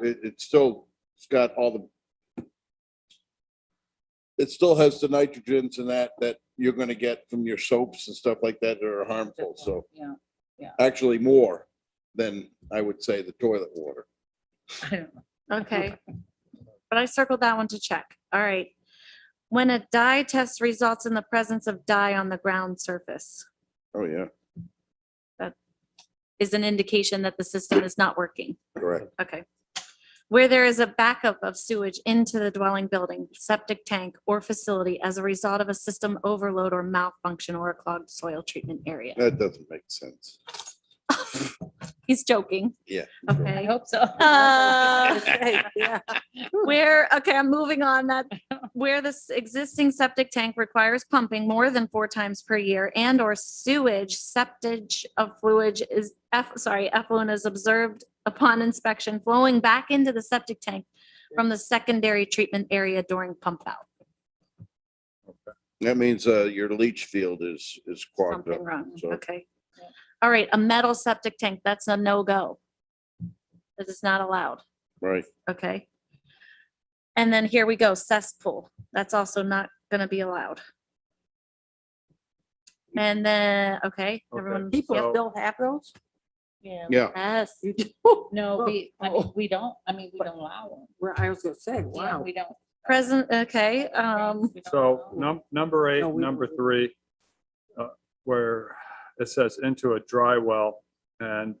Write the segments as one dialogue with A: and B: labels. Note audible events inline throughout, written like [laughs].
A: it, it still, it's got all the. It still has the nitrogens and that, that you're gonna get from your soaps and stuff like that that are harmful, so
B: Yeah, [laughs]
A: actually more than I would say the toilet water.
B: I don't know.
C: Okay. But I circled that one to check. All right. When a dye test results in the presence of dye on the ground surface
A: Oh, yeah,
C: is an indication that the system is not working.
A: correct.
C: Okay. Where there is a backup of sewage into the dwelling building, septic tank, or facility as a result of a system overload or malfunction or a clogged soil treatment area.
A: That doesn't make sense.
C: He's joking.
A: Yeah.
B: I
C: Okay.
B: hope so. [laughs]
C: Uh, Where, okay, I'm moving on that, where this existing septic tank requires pumping more than four times per year and or sewage, septage of fluid is, eff- sorry, effluent is observed upon inspection flowing back into the septic tank from the secondary treatment area during pump out,
A: That means, uh, your leach field is, is clogged up.
C: something wrong,
A: so-
C: okay. All right, a metal septic tank, that's a no-go. This is not allowed.
A: Right,
C: Okay. And then here we go, cesspool. That's also not gonna be allowed. And then, okay,
D: Okay,
C: everyone.
E: People
C: yep.
E: still have those?
B: Yeah.
A: yeah.
C: Yes,
E: You do?
B: No, we, I mean,
E: Oh.
B: we don't, I mean, we don't allow them.
E: Well, I was gonna say,
B: Yeah,
E: wow.
B: we don't.
C: present, okay, um,
B: We don't
D: So
B: allow 'em.
D: num- number eight,
E: No, we-
D: number three, uh, where it says into a dry well. And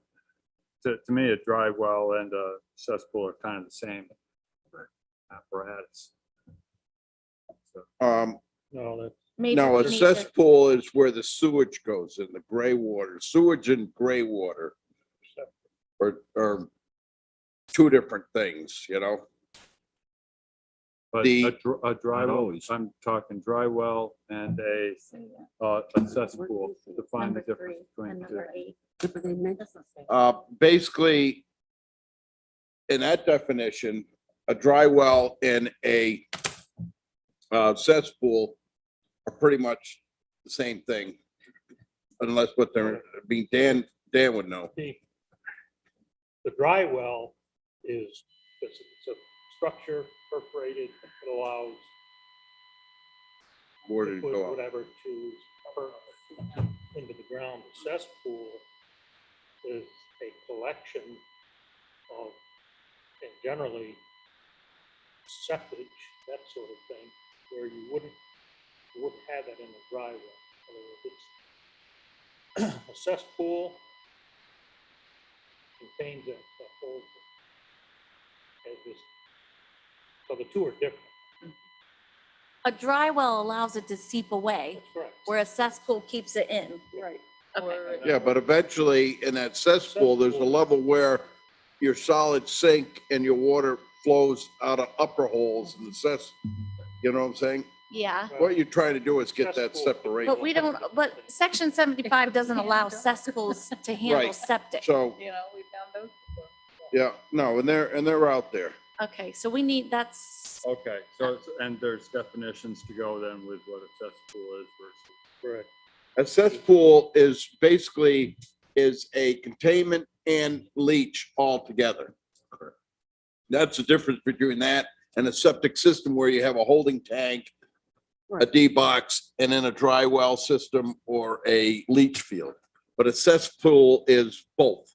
D: to, to me, a dry well and a cesspool are kind of the same apparatus. So,
A: Um,
F: No, that-
C: major-
A: now a
C: major-
A: cesspool is where the sewage goes in, the gray water, sewage and gray water. Are, are two different things, you know?
D: But
A: The-
D: a, dr- a dry
A: Not
D: well,
A: always.
D: I'm talking dry well and a,
B: Say that.
D: uh, a cesspool. Define the
C: Number
D: difference
C: three
D: between
C: and
D: the two.
C: number eight.
E: But they make-
B: Doesn't say that.
A: Uh, basically, in that definition, a dry well and a uh, cesspool are pretty much the same thing. Unless what
F: Uh,
A: they're, I mean, Dan, Dan would know.
F: The the dry well is, it's it's a structure perforated that allows
A: Where did it
F: liquid,
A: go up?
F: whatever to perk into the ground. The Cesspool is a collection of, and generally septic, that sort of thing, where you wouldn't, you wouldn't have that in a dry well. In other words, it's- [clears throat] A cesspool contains that, that whole thing. As this, so the two are different.
C: A dry well allows it to seep away,
F: That's correct.
C: where a cesspool keeps it in.
F: Right.
C: Okay.
A: Yeah, but eventually in that cesspool, there's a level where your solid sink and your water flows out of upper holes in the cess. You know what I'm saying?
C: Yeah,
A: What you're trying to do is get that
F: Cesspool.
A: separation.
C: but we don't, but section seventy-five doesn't allow cesspools to handle
A: Right.
C: septic.
A: So,
B: You know, we found those. before.
A: yeah, no, and they're, and they're out there.
C: Okay, so we need, that's,
D: Okay, so, it's- and there's definitions to go then with what a cesspool is versus.
F: Correct.
A: A cesspool is basically is a containment and leach altogether. That's the difference between that and a septic system where you have a holding tank, a
E: Right.
A: D box, and then a dry well system or a leach field. But a cesspool is both.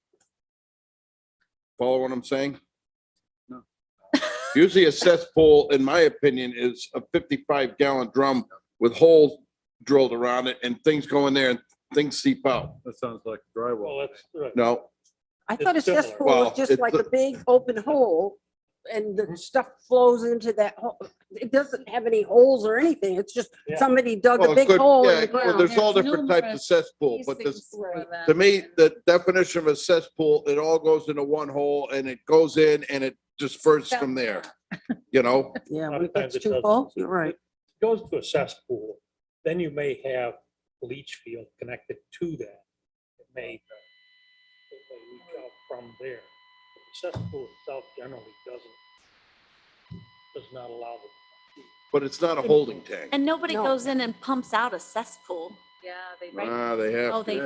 A: Follow what I'm saying?
D: No.
A: Usually a cesspool, in my opinion, is a fifty-five gallon drum with holes drilled around it and things go in there and things seep out.
D: That sounds like a dry well.
F: Well, that's right.
A: No,
E: I thought a
F: It's similar.
E: cesspool was
A: Well,
E: just
A: it's
E: like
A: a-
E: a big open hole and the stuff flows into that hole. It doesn't have any holes or anything. It's just
F: Yeah.
E: somebody dug
A: Well,
E: a
A: it
E: big
A: could-
E: hole
A: yeah,
E: in Oh, the
A: well,
E: ground.
A: There's all
B: There's
A: different types of
B: numerous
A: cesspool,
B: These
A: but this,
B: things were that-
A: to me, the definition of a cesspool, it all goes into one hole and it goes in and it disperses from
E: [laughs]
A: there, you know?
E: Yeah,
F: A lot
E: when
F: of
E: it gets
F: times it
E: too
F: doesn't.
E: full, you're right.
F: Goes to a cesspool, then you may have leach field connected to that. It may, it may leach out from there. But the Cesspool itself generally doesn't, does not allow the
A: But it's not a holding tank.
C: and nobody
E: No.
C: goes in and pumps out a cesspool.
B: Yeah, they,
A: Ah, they
C: Oh,
A: have,
C: they do.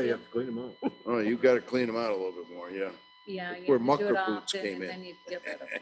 A: oh, you gotta clean them out a little bit more, yeah.
B: yeah. you
A: Where
B: have to do it
A: mucker boots
B: often
A: came
B: and
A: in.
B: then you get rid of it.